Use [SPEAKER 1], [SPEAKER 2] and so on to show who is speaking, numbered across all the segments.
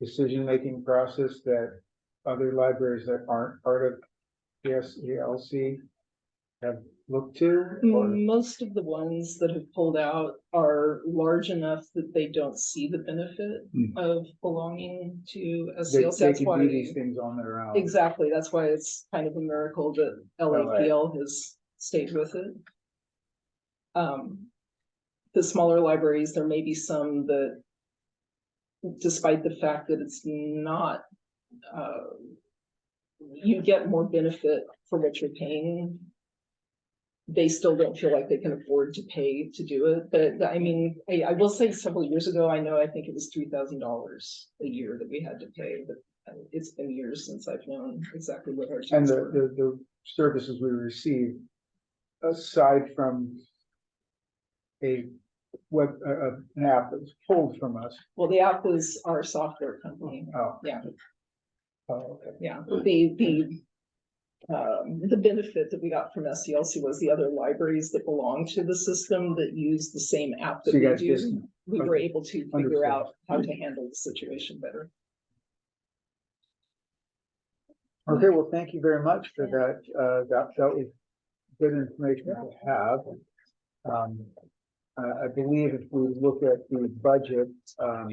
[SPEAKER 1] decision-making process that other libraries that aren't part of PSELC have looked to?
[SPEAKER 2] Mm,
[SPEAKER 1] or-
[SPEAKER 2] Most of the ones that have pulled out are large enough that they don't see the benefit
[SPEAKER 1] Mm.
[SPEAKER 2] of belonging to
[SPEAKER 1] They
[SPEAKER 2] SCLC.
[SPEAKER 1] they
[SPEAKER 2] That's
[SPEAKER 1] can do
[SPEAKER 2] why,
[SPEAKER 1] these things on their own.
[SPEAKER 2] exactly, that's why it's kind of a miracle that LAPL has stayed with it. Um, the smaller libraries, there may be some that despite the fact that it's not, uh, you get more benefit for what you're paying they still don't feel like they can afford to pay to do it, but I mean, I, I will say several years ago, I know, I think it was three thousand dollars a year that we had to pay, but uh, it's been years since I've known exactly what our.
[SPEAKER 1] And
[SPEAKER 2] fees
[SPEAKER 1] the,
[SPEAKER 2] were.
[SPEAKER 1] the, the services we receive, aside from a web, a, a- an app that's pulled from us,
[SPEAKER 2] Well, the app was our software company,
[SPEAKER 1] oh.
[SPEAKER 2] Yeah.
[SPEAKER 1] Oh, okay.
[SPEAKER 2] yeah, the, the. Um, the benefit that we got from SCLC was the other libraries that belong to the system that use the same app that
[SPEAKER 1] So you
[SPEAKER 2] we
[SPEAKER 1] guys just,
[SPEAKER 2] do. We were able to
[SPEAKER 1] Understood.
[SPEAKER 2] figure out how to handle the situation better.
[SPEAKER 1] okay, well, thank you very much for that, uh, that, that was good information to have. Um, I, I believe if we look at the budget, um,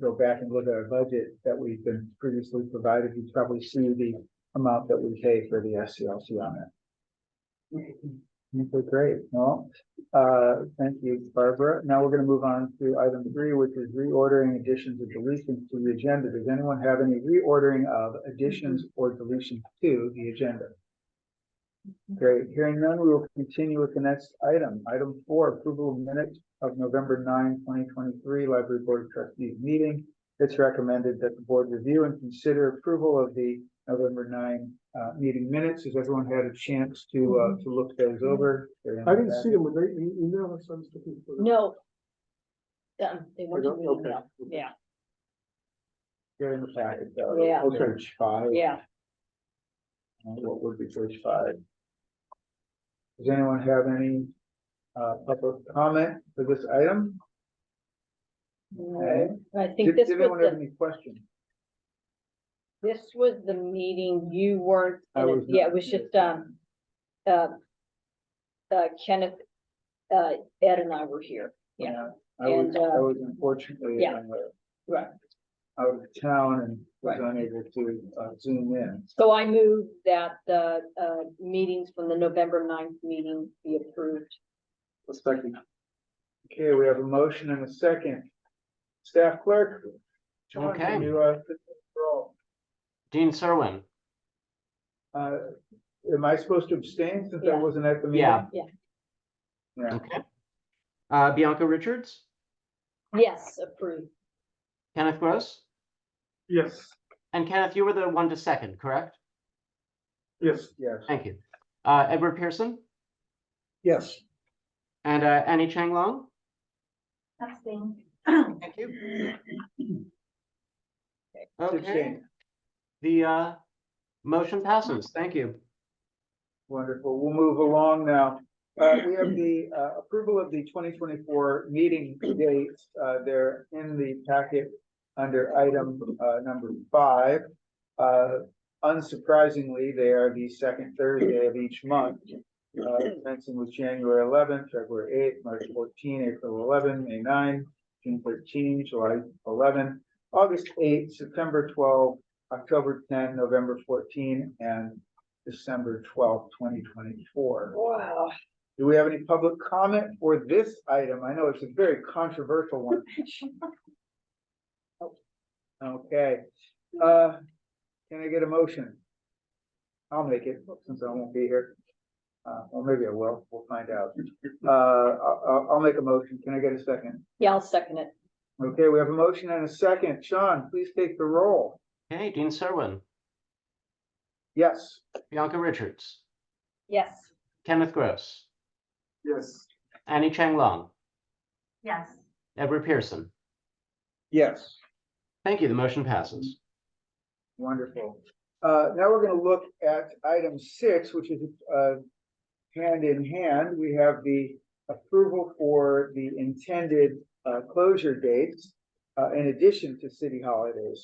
[SPEAKER 1] go back and look at our budget that we've been previously provided, you probably see the amount that we pay for the SCLC on it. Okay, great. Well, uh, thank you, Barbara. Now we're gonna move on to item three, which is reordering additions or deletions to the agenda. Does anyone have any reordering of additions or deletions to the agenda? Great. Hearing none, we will continue with the next item. Item four, approval of minutes of November 9, 2023, Library Board of Trustees meeting. It's recommended that the board review and consider approval of the November nine, uh, meeting minutes. Has everyone had a chance to, uh, to look those over?
[SPEAKER 3] Mm-hmm. I didn't see them when they e- emailed us, I was looking for them.
[SPEAKER 4] No. Um, they weren't
[SPEAKER 3] don't-
[SPEAKER 4] in the
[SPEAKER 3] okay,
[SPEAKER 4] email,
[SPEAKER 3] okay.
[SPEAKER 4] yeah,
[SPEAKER 1] They're in the packet though.
[SPEAKER 4] Yeah.
[SPEAKER 3] Okay.
[SPEAKER 1] Page five.
[SPEAKER 4] yeah,
[SPEAKER 1] Uh, What would be page five? Does anyone have any, uh, public comment for this item? Okay.
[SPEAKER 4] I think
[SPEAKER 1] Did
[SPEAKER 4] this
[SPEAKER 1] did
[SPEAKER 4] was
[SPEAKER 1] anyone have
[SPEAKER 4] the,
[SPEAKER 1] any questions?
[SPEAKER 4] this was the meeting you weren't,
[SPEAKER 1] I
[SPEAKER 4] in it.
[SPEAKER 1] was
[SPEAKER 4] yeah,
[SPEAKER 1] not
[SPEAKER 4] it was
[SPEAKER 1] here.
[SPEAKER 4] just, um, uh, uh, Kenneth, uh, Ed and I were here, yeah.
[SPEAKER 1] I was,
[SPEAKER 4] And, uh,
[SPEAKER 1] I was unfortunately,
[SPEAKER 4] yeah.
[SPEAKER 1] uh,
[SPEAKER 4] Right.
[SPEAKER 1] out of town and was
[SPEAKER 4] Right.
[SPEAKER 1] unable to, uh, zoom in.
[SPEAKER 4] So I move that the, uh, meetings from the November 9th meeting be approved.
[SPEAKER 3] Second.
[SPEAKER 1] Okay, we have a motion and a second. Staff clerk? John, can
[SPEAKER 5] Okay.
[SPEAKER 1] You, uh, take the roll?
[SPEAKER 5] Dean Serwin,
[SPEAKER 1] uh, am I supposed to abstain since I
[SPEAKER 4] Yeah.
[SPEAKER 1] wasn't at the meeting?
[SPEAKER 5] Yeah.
[SPEAKER 4] Yeah.
[SPEAKER 1] Yeah.
[SPEAKER 5] okay. Uh, Bianca Richards,
[SPEAKER 4] Yes, approved,
[SPEAKER 5] Kenneth Gross,
[SPEAKER 3] Yes,
[SPEAKER 5] and Kenneth, you were the one to second, correct?
[SPEAKER 3] yes,
[SPEAKER 1] Yes.
[SPEAKER 5] Thank you. Uh, Edward Pearson
[SPEAKER 3] yes.
[SPEAKER 5] and, uh, Annie Chang Long? Thank you. Okay,
[SPEAKER 1] Abstain.
[SPEAKER 5] the, uh, motion passes. Thank you.
[SPEAKER 1] Wonderful. We'll move along now. Uh, we have the, uh, approval of the twenty twenty-four meeting dates. Uh, they're in the packet under item, uh, number five. Uh, unsurprisingly, they are the second Thursday of each month. Uh, commencing with January eleventh, February eighth, March 14, April 11, May 9, June 13, July 11, August 8, September 12, October 10, November 14, and December twelfth, twenty twenty-four.
[SPEAKER 4] wow.
[SPEAKER 1] Do we have any public comment for this item? I know it's a very controversial one. Okay, uh, can I get a motion? I'll make it, since I won't be here. Uh, well, maybe I will, we'll find out. Uh, I'll, I'll- I'll make a motion, can I get a second?
[SPEAKER 4] Yeah, I'll second it,
[SPEAKER 1] Okay, we have a motion and a second. Sean, please take the roll.
[SPEAKER 5] Okay, Dean Serwin,
[SPEAKER 1] Yes.
[SPEAKER 5] Bianca Richards,
[SPEAKER 4] yes.
[SPEAKER 5] Kenneth Gross,
[SPEAKER 3] Yes.
[SPEAKER 5] Annie Chang Long,
[SPEAKER 4] Yes.
[SPEAKER 5] Edward Pearson.
[SPEAKER 1] Yes.
[SPEAKER 5] Thank you. The motion passes.
[SPEAKER 1] Wonderful. Uh, now we're gonna look at item six, which is, uh, hand in hand, we have the approval for the intended, uh, closure dates, uh, in addition to city holidays.